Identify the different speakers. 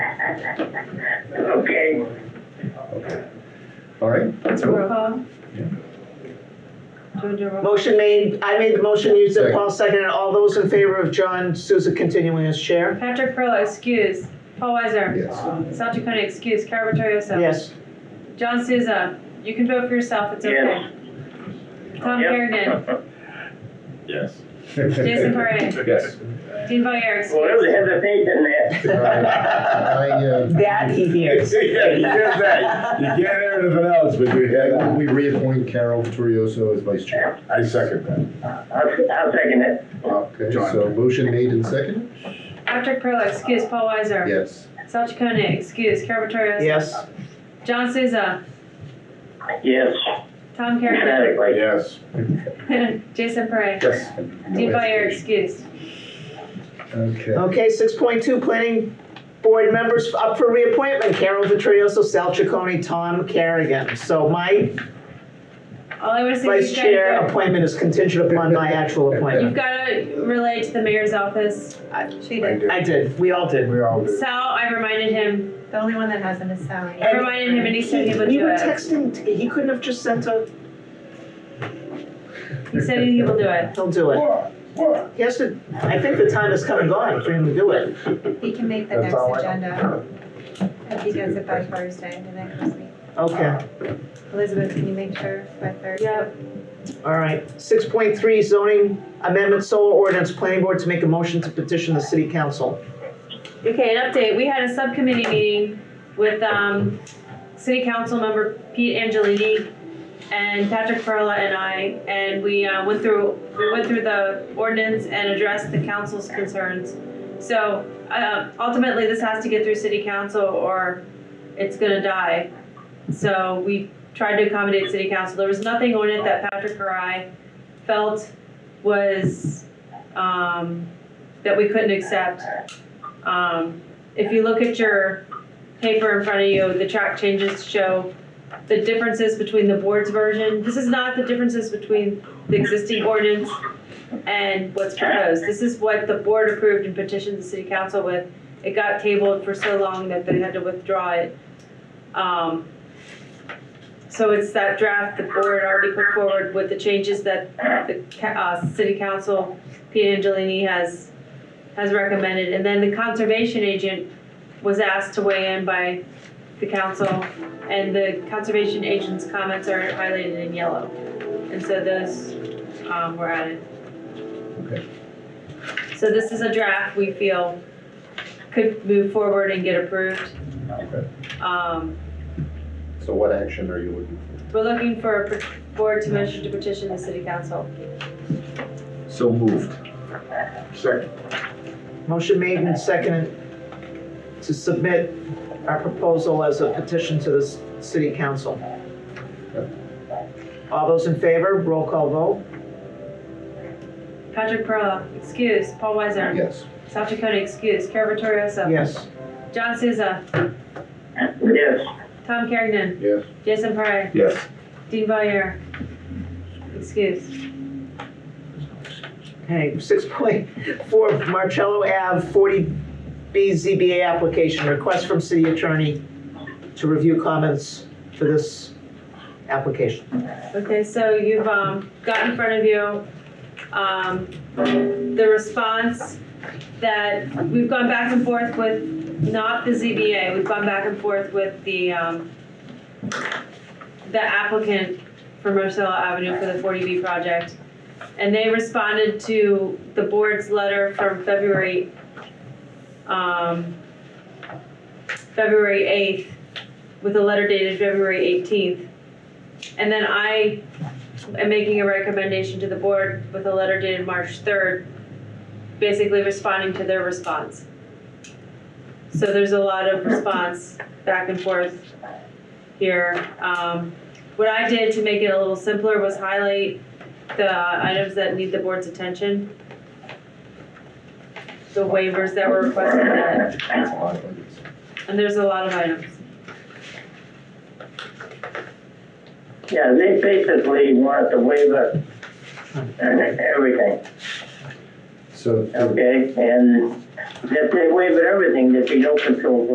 Speaker 1: Okay,
Speaker 2: All right,
Speaker 3: Roll call?
Speaker 2: Yeah.
Speaker 3: Jojo, roll-
Speaker 4: Motion made, I made the motion, you said
Speaker 2: Second.
Speaker 4: Paul seconded, all those in favor of John Souza continuing as chair?
Speaker 3: Patrick Perla, excuse. Paul Weiser.
Speaker 2: yes.
Speaker 3: South Dakota, excuse. Carol Vittorioso.
Speaker 4: Yes.
Speaker 3: John Souza, you can vote for yourself, it's okay. Tom
Speaker 1: Yep.
Speaker 3: Kerrigan,
Speaker 5: Yes.
Speaker 3: Jason Parre,
Speaker 2: Yes.
Speaker 3: Dean Valier,
Speaker 1: well, it was
Speaker 3: excuse.
Speaker 1: hesitation there.
Speaker 2: I, uh,
Speaker 4: That he hears.
Speaker 5: Yeah, you get that. You can't hear anything else, but you hear
Speaker 2: I move
Speaker 5: that.
Speaker 2: we reappoint Carol Vittorioso as vice chair.
Speaker 5: I second that.
Speaker 1: I'll, I'll second it.
Speaker 2: Okay, so motion made and second?
Speaker 3: Patrick Perla, excuse. Paul Weiser.
Speaker 2: Yes.
Speaker 3: South Dakota, excuse. Carol Vittorioso.
Speaker 4: Yes.
Speaker 3: John Souza,
Speaker 1: Yes,
Speaker 3: Tom Kerrigan,
Speaker 1: emphatically.
Speaker 5: Yes.
Speaker 3: Jason Parre,
Speaker 2: Yes.
Speaker 3: Dean Valier, excuse.
Speaker 2: Okay.
Speaker 4: Okay, six point two, planning board members up for reappointment, Carol Vittorioso, Sal Chaconi, Tom Kerrigan. So my
Speaker 3: All I want to say is
Speaker 4: vice
Speaker 3: you
Speaker 4: chair
Speaker 3: guys,
Speaker 4: appointment is contingent upon my actual
Speaker 3: you've
Speaker 4: appointment.
Speaker 3: got to relay to the mayor's office.
Speaker 4: I-
Speaker 3: She
Speaker 5: I do.
Speaker 4: I did, we all did.
Speaker 5: We all do.
Speaker 3: Sal, I reminded him,
Speaker 6: The only one that hasn't is Sally.
Speaker 3: I reminded him and he said he would
Speaker 4: We
Speaker 3: do
Speaker 4: were
Speaker 3: it.
Speaker 4: texting, t- he couldn't have just sent a,
Speaker 3: He said he will do it.
Speaker 4: he'll do it.
Speaker 5: What? What?
Speaker 4: He has to, I think the time has come and gone for him to do it.
Speaker 6: He can make the
Speaker 5: That's
Speaker 6: next
Speaker 5: all I know.
Speaker 6: agenda. If he does it by Thursday, the next meeting.
Speaker 4: Okay.
Speaker 6: Elizabeth, can you make sure by Thursday?
Speaker 4: Yep. All right, six point three zoning amendment solar ordinance, planning board to make a motion to petition the city council.
Speaker 3: Okay, an update. We had a subcommittee meeting with, um, city council member Pete Angelini and Patrick Perla and I, and we, uh, went through, we went through the ordinance and addressed the council's concerns. So, uh, ultimately, this has to get through city council or it's gonna die. So we tried to accommodate city council. There was nothing on it that Patrick or I felt was, um, that we couldn't accept. Um, if you look at your paper in front of you, the track changes show the differences between the board's version. This is not the differences between the existing ordinance and what's proposed. This is what the board approved and petitioned the city council with. It got tabled for so long that they had to withdraw it. Um, so it's that draft the board already put forward with the changes that the, ca- uh, city council, Pete Angelini has has recommended, and then the conservation agent was asked to weigh in by the council, and the conservation agent's comments are highlighted in yellow, and so those, um, were added.
Speaker 2: Okay.
Speaker 3: So this is a draft we feel could move forward and get approved.
Speaker 2: Okay.
Speaker 3: Um,
Speaker 2: So what action are you looking
Speaker 3: we're looking for a pet- board to motion to petition the city council.
Speaker 2: for? So moved.
Speaker 5: Second.
Speaker 4: Motion made and seconded to submit our proposal as a petition to the s- city council. All those in favor, roll call vote.
Speaker 3: Patrick Perla, excuse, Paul Weiser,
Speaker 2: Yes.
Speaker 3: South Dakota, excuse, Carol Vittorioso.
Speaker 4: Yes.
Speaker 3: John Souza,
Speaker 1: Yes,
Speaker 3: Tom Kerrigan,
Speaker 5: Yes.
Speaker 3: Jason Parre,
Speaker 5: Yes.
Speaker 3: Dean Valier. Excuse.
Speaker 4: Okay, six point four, Marcello Ave, forty B ZBA application, request from city attorney to review comments for this application.
Speaker 3: Okay, so you've um, got in front of you um, the response that we've gone back and forth with, not the ZBA, we've gone back and forth with the, um, the applicant for Marcella Avenue for the 40B project. And they responded to the board's letter from February, um, February 8th, with a letter dated February 18th. And then I am making a recommendation to the board with a letter dated March third, basically responding to their response. So there's a lot of response back and forth here. Um, what I did to make it a little simpler was highlight the items that need the board's attention. The waivers that were requested that,
Speaker 2: That's a lot of items.
Speaker 3: and there's a lot of items.
Speaker 1: yeah, they basically want to waiver and everything,
Speaker 2: So.
Speaker 1: okay? And if they waiver everything, there'd be no control